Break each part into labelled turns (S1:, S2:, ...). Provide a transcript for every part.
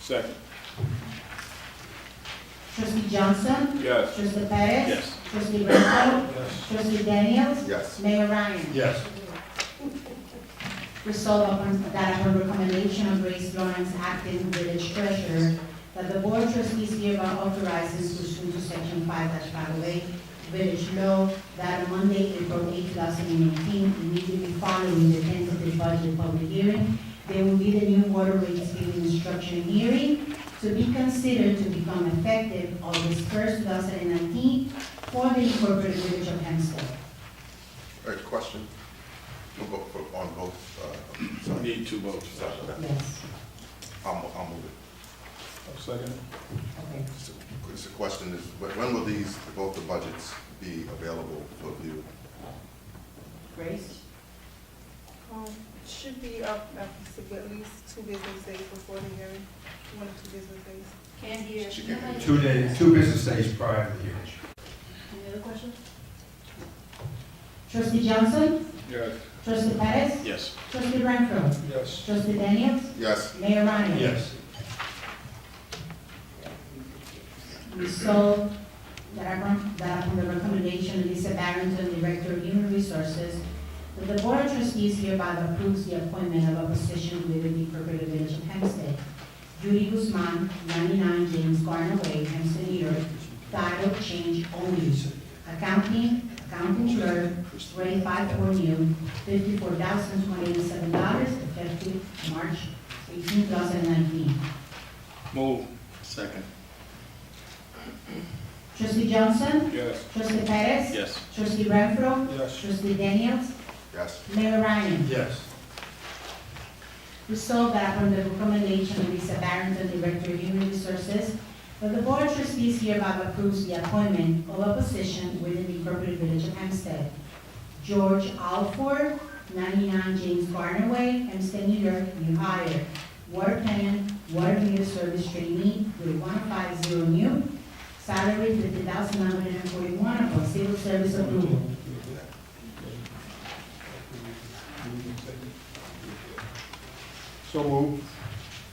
S1: Second.
S2: Trustee Johnson?
S1: Yes.
S2: Trustee Perez?
S1: Yes.
S2: Trustee Renfro?
S1: Yes.
S2: Trustee Daniels?
S3: Yes.
S2: Mayor Ryan?
S1: Yes.
S2: Resolve upon that upon recommendation of Grace Lawrence, acting village treasurer, that the board of trustees hereby authorizes pursuant to section five five oh eight village law that on Monday, April eight, two thousand and eighteen, immediately following the tentative budget public hearing, there will be the new water rates being instruction hearing to be considered to become effective August first, two thousand and nineteen, for the incorporated village of Hempstead.
S3: All right, question? We'll go for, on both, uh, sorry.
S1: Need two votes.
S3: Sorry, okay.
S2: Yes,
S3: I'll, mo- I'll move it.
S1: Second.
S2: okay.
S3: So, It's a question, is, wh- when will these, both the budgets be available for view?
S2: Grace?
S4: Um, it should be up after at least two business days before the hearing, one or two business days.
S5: Can't hear.
S3: She can't hear.
S5: Nobody-
S6: Two days, two business days prior to the hearing.
S5: Any other questions?
S2: Trustee Johnson?
S1: Yes.
S2: Trustee Perez?
S1: Yes.
S2: Trustee Renfro.
S1: Yes.
S2: Trustee Daniels.
S3: Yes,
S2: Mayor Ryan.
S6: Yes.
S2: Resolved that upon, that upon the recommendation of Lisa Barrington, Director of Human Resources, that the Board of Trustees hereby approves the appointment of a position within the appropriate village of Hempstead. Judy Guzman, 99 James Garner Way, Hempstead, New York, title change only. Accounting, accounting clerk, grade 5 new, $54,187, effective March 18, 2019.
S1: Move. Second.
S2: Trustee Johnson?
S1: Yes.
S2: Trustee Perez?
S1: Yes.
S2: Trustee Renfro?
S1: Yes.
S2: Trustee Daniels?
S3: yes,
S2: Mayor Ryan?
S6: Yes.
S2: Resolved that upon the recommendation of Lisa Barrington, Director of Human Resources, that the Board of Trustees hereby approves the appointment of a position within the appropriate village of Hempstead. George Alford, 99 James Garner Way, Hempstead, New York, new hire. Water tenant, water meter service trainee, grade 150 new, salary 50941 upon civil service approval.
S1: So move.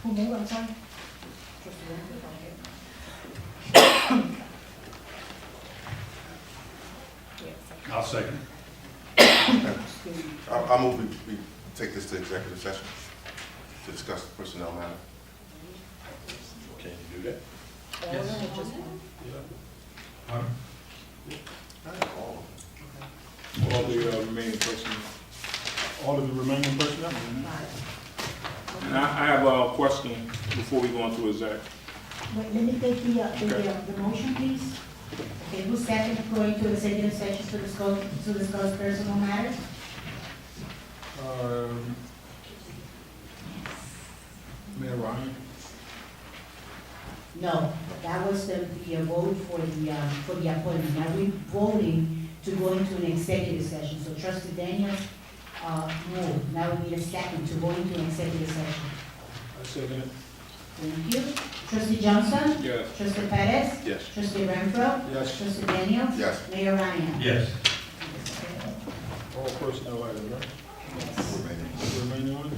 S2: Who moved, I'm sorry?
S6: I'll second.
S3: I'll, I'll move, we, we take this to executive session to discuss personnel matter.
S1: Can you do that?
S6: Yes. Huh?
S3: Not at all.
S1: All the uh, remaining personnel. All of the remaining personnel? And I, I have a question before we go into exec.
S2: Wait, let me take the, uh, the,
S1: Okay.
S2: uh, the motion, please. Okay, who's second going to executive session to discuss, to discuss personal matters?
S1: Um, Mayor Ryan?
S2: No, that was the, the uh, vote for the, uh, for the appointment. Now, we're voting to go into an executive session, so trustee Daniels, uh, moved. Now we need a second to go into an executive session.
S1: I second it.
S2: Thank you. Trustee Johnson?
S1: Yes.
S2: Trustee Perez?
S1: Yes.
S2: Trustee Renfro?
S1: Yes.
S2: Trustee Daniels?
S3: Yes.
S2: Mayor Ryan?
S6: Yes.
S1: All personnel items, right?
S3: Remaining.
S1: Remaining ones?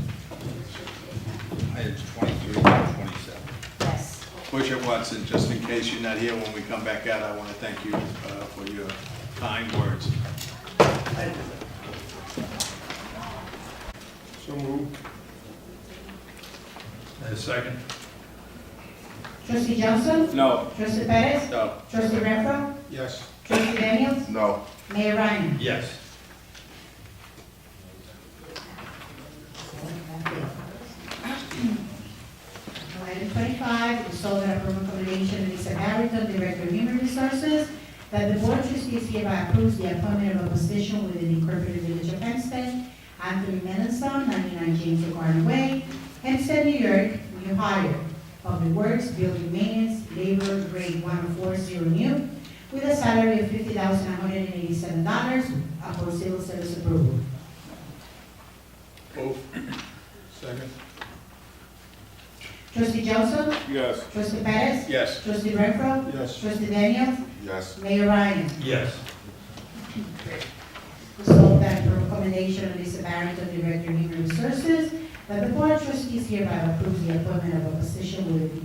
S7: Items twenty-three and twenty-seven.
S2: Yes.
S7: Butcher Watson, just in case you're not here when we come back out, I want to thank you uh, for your kind words.
S1: So move.
S6: And second?
S2: Trustee Johnson?
S1: No.
S2: Trustee Perez?
S7: No.
S2: Trustee Renfro?
S1: Yes.
S2: Trustee Daniels?
S3: No.
S2: Mayor Ryan?
S6: Yes.
S2: Item twenty-five, resolved that upon recommendation of Lisa Barrington, Director of Human Resources, that the Board of Trustees hereby approves the appointment of a position within the Incorporated Village of Hempstead, Anthony Melanson, ninety-nine James Garden Way, Hempstead, New York, new hire, Public Works, Building Maintenance, Labor, Grade one four zero new, with a salary of fifty thousand one hundred and eighty-seven dollars upon civil service approval.
S1: Move. Second.
S2: Trustee Johnson?
S1: Yes.
S2: Trustee Perez?
S1: Yes.
S2: Trustee Renfro?
S1: Yes.
S2: Trustee Daniels?
S3: Yes,
S2: Mayor Ryan?
S6: Yes.
S2: Resolved that the recommendation of Lisa Barrington, Director of Human Resources, that the Board of Trustees hereby approves the appointment of a position within the